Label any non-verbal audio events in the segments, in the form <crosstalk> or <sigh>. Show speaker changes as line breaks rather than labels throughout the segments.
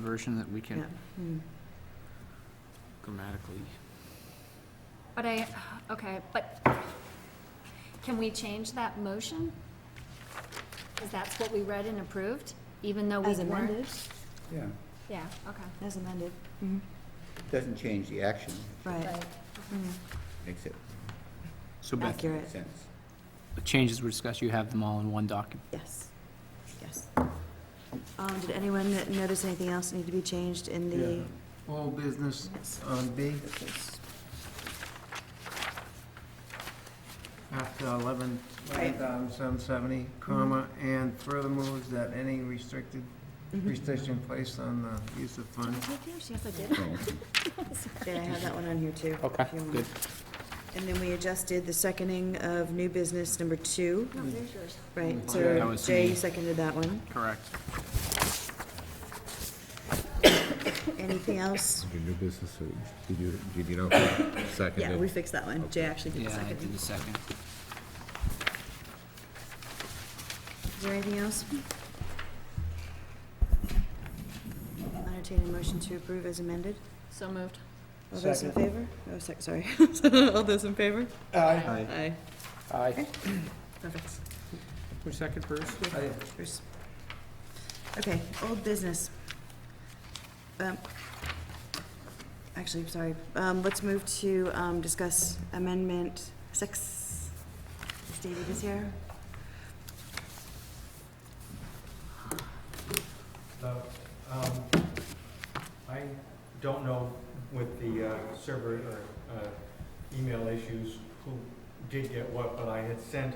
version that we
yeah.
can
Hmm.
grammatically.
But I, okay, but can we change that motion? Because that's what we read and approved, even though we
As
weren't?
amended,
Yeah,
Yeah, okay.
as amended,
doesn't change the action,
Mm-hmm. right.
Right.
Mm.
makes it
So Beth,
Accurate.
make sense.
the changes were discussed, you have them all in one document.
Yes, yes. Um, did anyone n- notice anything else need to be changed in the?
All business on B after eleven, eleven thousand seven seventy, comma, and further moves that any restricted, restriction placed on the use of
Did I
funds.
take yours? Yes, I did.
Oh,
Yeah, I have that one on here too.
Okay,
if you want.
good.
And then we adjusted the seconding of new business number two,
Hmm.
No, there's yours.
right?
Mm-hmm. That
So
was
Jay,
me.
you seconded that one.
Correct. <laughs>
Anything else?
Your new business, or did you, did you know,
Yeah, we
seconded?
fixed that one. Jay actually did the
Yeah, I
second.
did the second.
Is there anything else? Entertain a motion to approve as amended.
So moved.
All those in
Second.
favor? Oh, sec, sorry. <laughs> All those in favor?
Aye.
Aye.
Aye.
Perfect.
Who's second first?
Aye.
Bruce. Okay, old business. Um, Actually, I'm sorry, um, let's move to, um, discuss amendment six. Is David is here?
So, um, I don't know with the uh, server or uh, email issues who did get what, but I had sent,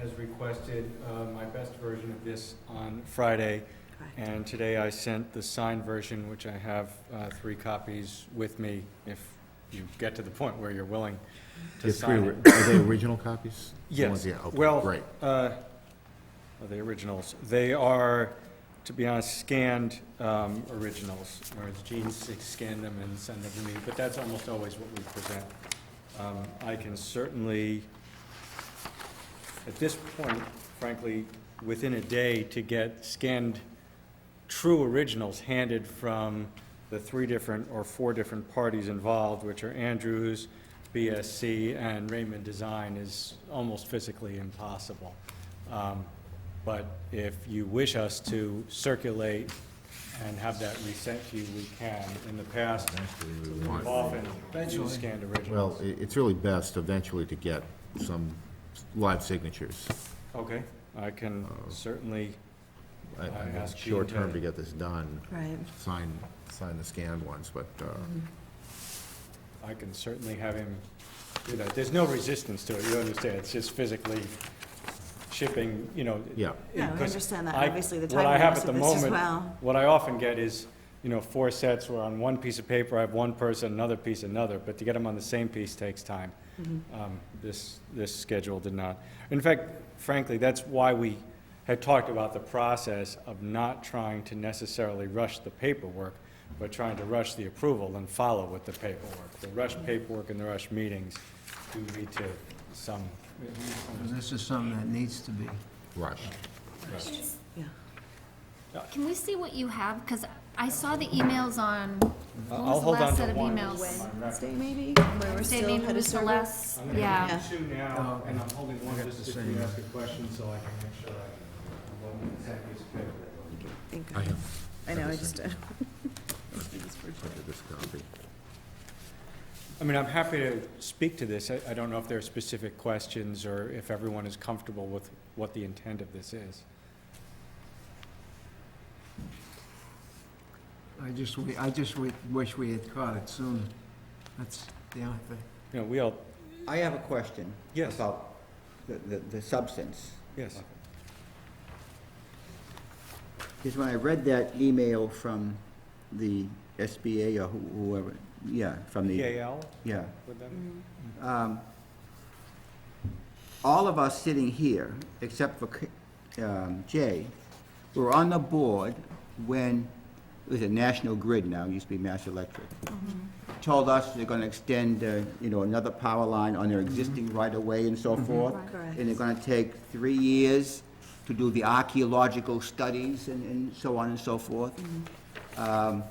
as requested, uh, my best version of this on Friday.
Correct.
And today I sent the signed version, which I have uh, three copies with me, if you get to the point where you're willing to
Your three
sign
were-
it.
Are they original copies? The ones-
Yes.
Yeah, okay,
Well,
great.
uh, Are they originals? They are, to be honest, scanned um, originals, where it's Gene s- scanned them and sent them to me, but that's almost always what we present. Um, I can certainly, at this point, frankly, within a day, to get scanned true originals handed from the three different or four different parties involved, which are Andrews, BSC, and Raymond Design, is almost physically impossible. Um, But if you wish us to circulate and have that resent to you, we can. In the past,
We want-
often, you scanned
Well,
originals.
i- it's really best eventually to get some live signatures.
Okay, I can certainly,
Um, I- I mean,
ask
it's Short
Gene to-
term to get this done,
Right,
sign, sign the scanned ones, but, uh,
I can certainly have him do that. There's no resistance to it, you understand, it's just physically shipping, you know.
yeah.
no, I
because
understand that,
I-
obviously, the
what I have
timeliness
at the
of this as
moment-
well.
What I often get is, you know, four sets where on one piece of paper, I have one person, another piece, another, but to get them on the same piece takes time.
Mm-hmm.
Um, This, this schedule did not. In fact, frankly, that's why we had talked about the process of not trying to necessarily rush the paperwork, but trying to rush the approval and follow with the paperwork. The rush
Mm-hmm.
paperwork and the rush meetings do lead to some
This is something that needs to be.
Rush.
rush.
Yeah.
Can we see what you have? Because I saw the emails on, when
I'll
was the
hold on
last
to
set of
one.
emails?
Wednesday maybe, where we're
Wednesday,
still
maybe
had a
was the
server.
last,
I'm gonna
yeah.
have two now, and I'm holding one
I got
just
the
if you
same.
ask a question, so I can make sure I, one second, piece of paper.
Think-
I have
I know, I just, uh,
this copy.
I mean, I'm happy to speak to this. I, I don't know if there are specific questions or if everyone is comfortable with what the intent of this is.
I just, we- I just we- wish we had caught it sooner. That's the only thing.
You know, we all,
I have a question.
Yes.
About the, the, the substance.
yes,
Because when I read that email from the SBA or who- whoever, yeah, from the,
EAL
yeah.
with them?
um, all of us sitting here, except for K- um, Jay, were on the board when, it was a National Grid now, it used to be Mass Electric,
Mm-hmm.
told us they're gonna extend, uh, you know, another power line on their existing right-of-way and so forth.
Mm-hmm. Right. Correct.
And they're gonna take three
Mm-hmm.
years to do the archaeological studies and, and so on and so forth. Um,